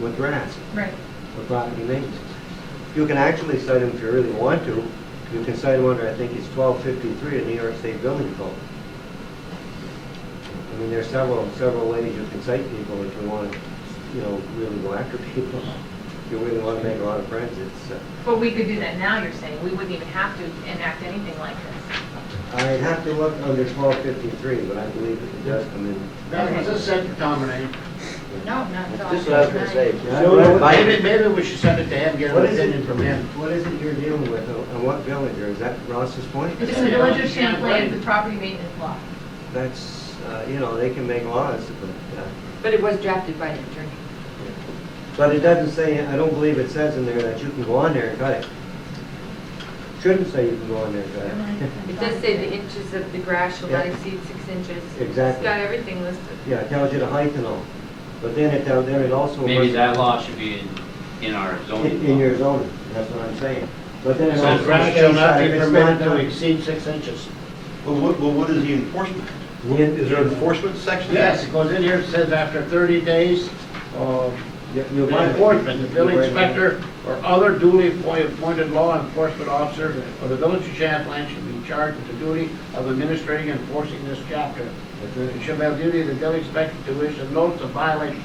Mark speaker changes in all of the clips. Speaker 1: with grass,
Speaker 2: Right.
Speaker 1: with property maintenance. You can actually cite them if you really want to. You can cite them under, I think it's 1253 of New York State Building Code. I mean, there's several, several ways you can cite people if you want to, you know, really go after people. If you really want to make a lot of friends, it's, uh,
Speaker 2: But we could do that now, you're saying, we wouldn't even have to enact anything like this.
Speaker 1: I'd have to look under 1253, but I believe it does come in.
Speaker 3: That was a second comment.
Speaker 4: No, not at all.
Speaker 5: This is what I was gonna say.
Speaker 1: So-
Speaker 3: Maybe, maybe we should send it to him, get an
Speaker 1: What is it,
Speaker 3: opinion from him.
Speaker 1: what is it you're dealing with, uh, and what villager, is that Ross's Point?
Speaker 2: It's just the village of Champlain, the property maintenance law.
Speaker 1: That's, uh, you know, they can make laws, but, uh,
Speaker 4: But it was drafted by the attorney.
Speaker 1: but it doesn't say, I don't believe it says in there that you can go on there and cut it. Shouldn't say you can go on there and cut it.
Speaker 4: It does say the inches of the grass shall not
Speaker 1: Yeah.
Speaker 4: exceed six inches. It's
Speaker 1: Exactly.
Speaker 4: got everything listed.
Speaker 1: Yeah, it tells you the height and all, but then it, tells- there it also.
Speaker 5: Maybe
Speaker 1: must-
Speaker 5: that law should be in, in our zoning
Speaker 1: In in your
Speaker 5: law.
Speaker 1: zoning, that's what I'm saying. But then it
Speaker 3: So
Speaker 1: also.
Speaker 3: grass shall not
Speaker 1: says that
Speaker 3: be
Speaker 1: if it's
Speaker 3: permitted
Speaker 1: not
Speaker 3: to
Speaker 1: done-
Speaker 3: exceed six inches.
Speaker 6: Well, what, well, what is the enforcement? Is there an enforcement section?
Speaker 3: Yes, it goes in here, it says after thirty days, uh,
Speaker 1: You- you
Speaker 3: the
Speaker 1: violate it.
Speaker 3: enforcement, the
Speaker 1: You violate
Speaker 3: village
Speaker 1: it.
Speaker 3: inspector or other duly appoint- appointed law enforcement officer of the village of Champlain should be charged with the duty of administering and enforcing this chapter.
Speaker 1: That's
Speaker 3: It
Speaker 1: right.
Speaker 3: shall have duty of the village inspector to issue notice of violation.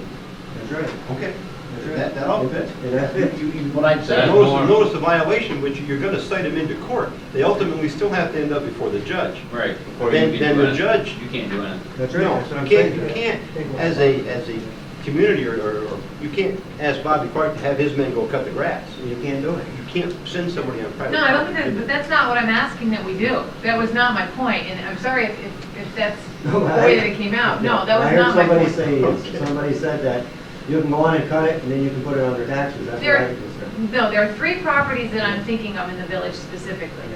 Speaker 1: That's right.
Speaker 6: Okay,
Speaker 1: That's right.
Speaker 6: that, that all fits.
Speaker 1: Yeah, that fits.
Speaker 3: You- you- What I'd
Speaker 5: That's
Speaker 3: say,
Speaker 6: Notice,
Speaker 5: more-
Speaker 6: notice the violation, which you're gonna cite them into court. They ultimately still have to end up before the judge.
Speaker 5: Right. before
Speaker 6: Then-
Speaker 5: you can
Speaker 6: then
Speaker 5: do
Speaker 6: the
Speaker 5: it.
Speaker 6: judge-
Speaker 5: You can't do anything.
Speaker 1: That's right.
Speaker 6: No,
Speaker 1: That's what I'm
Speaker 6: you can't,
Speaker 1: saying.
Speaker 6: you can't, as a, as a community, or, or, or you can't ask Bobby Clark to have his men go cut the grass.
Speaker 1: You can't do it.
Speaker 6: You can't send somebody on private.
Speaker 2: No, I don't
Speaker 6: property.
Speaker 2: think that, but that's not what I'm asking that we do. That was not my point, and I'm sorry if, if- if that's the
Speaker 1: No, I-
Speaker 2: way that it came out. No, that
Speaker 1: I
Speaker 2: was
Speaker 1: heard
Speaker 2: not my
Speaker 1: somebody
Speaker 2: point.
Speaker 1: say,
Speaker 6: Okay.
Speaker 1: yes. somebody said that, you can go on and cut it, and then you can put it under taxes, that's what
Speaker 2: There-
Speaker 1: I was concerned.
Speaker 2: No, there are three properties that I'm thinking of in the village specifically,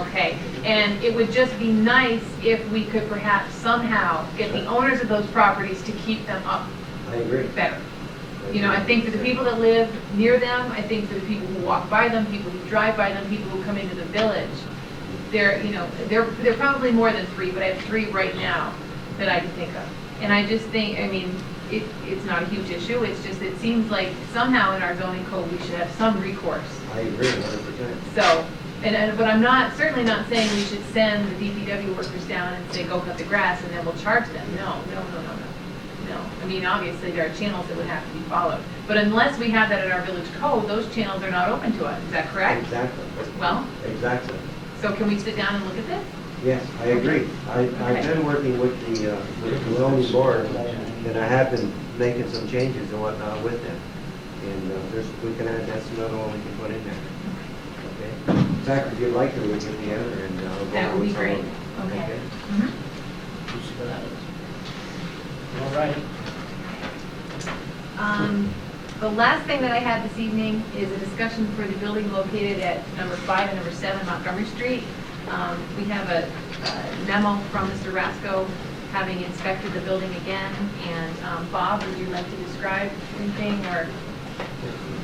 Speaker 2: okay? And it would just be nice if we could perhaps somehow get the owners of those properties to keep them up
Speaker 1: I agree.
Speaker 2: better. You know, I think for the people that live near them, I think for the people who walk by them, people who drive by them, people who come into the village, there, you know, there, there are probably more than three, but I have three right now that I can think of. And I just think, I mean, it, it's not a huge issue, it's just, it seems like somehow in our zoning code, we should have some recourse.
Speaker 1: I agree a hundred percent.
Speaker 2: So, and, and, but I'm not, certainly not saying we should send the DPW workers down and say, go cut the grass, and then we'll charge them. No, no, no, no, no. No, I mean, obviously, there are channels that would have to be followed. But unless we have that in our village code, those channels are not open to us, is that correct?
Speaker 1: Exactly,
Speaker 2: Well,
Speaker 1: exactly.
Speaker 2: so can we sit down and look at this?
Speaker 1: Yes, I agree. I, I've been working with the, uh, with the zoning board, and I have been making some changes and whatnot with them. And uh, there's, we can add, that's another one we can put in there. Okay? In fact, if you'd like to, we can get together and. uh, go
Speaker 2: That
Speaker 1: over
Speaker 2: would be
Speaker 1: some of
Speaker 2: great.
Speaker 1: them.
Speaker 2: Okay. Mm-hmm.
Speaker 3: all right.
Speaker 2: Um, The last thing that I had this evening is a discussion for the building located at number five and number seven Montgomery Street. Um, We have a a memo from Mr. Rasko having inspected the building again, and um, Bob, would you like to describe anything, or,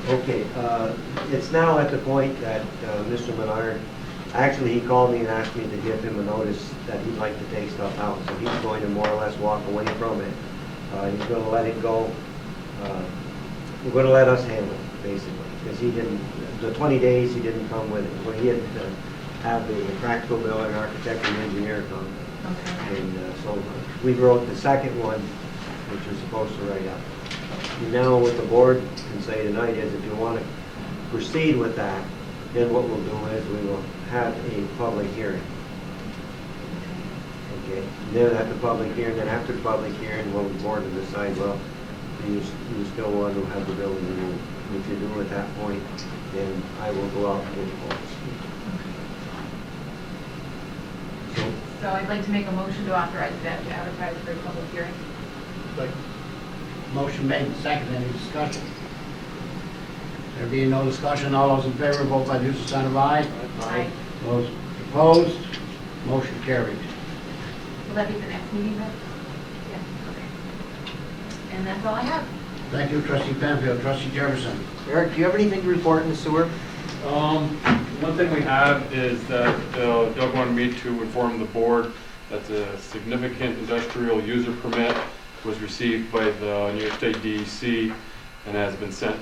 Speaker 1: Okay, uh, it's now at the point that uh, Mr. Menard, actually, he called me and asked me to give him a notice that he'd like to take stuff out, so he's going to more or less walk away from it. Uh, He's going to let it go, uh, we're going to let us handle it, basically, because he didn't, the 20 days, he didn't come with it. Well, he had to have the practical builder, architect, and engineer come.
Speaker 2: okay,
Speaker 1: And uh, so we wrote the second one, which was supposed to write up. Now what the board can say tonight is if you want to proceed with that, then what we'll do is we will have a public hearing. Okay, then at the public hearing, then after the public hearing, well, the board will decide, well, do you, you still want to have the building removed? If you do at that point, then I will go out and get quotes. So
Speaker 2: so I'd like to make a motion to authorize that to advertise for a public hearing.
Speaker 3: Like, Motion made and seconded, any discussion? There being no discussion, all those in favor, vote by the use of sign of aye.
Speaker 2: Aye.
Speaker 3: Those opposed, motion carried.
Speaker 2: Will that be the next meeting, Beth? Yeah, okay. And that's all I have.
Speaker 3: Thank you, trustee Penfield, trustee Jefferson.
Speaker 1: Eric, do you have anything to report in the sewer?
Speaker 7: Um, one thing we have is that uh, Doug wanted me to inform the board that the significant industrial user permit was received by the New York State DEC E and has been sent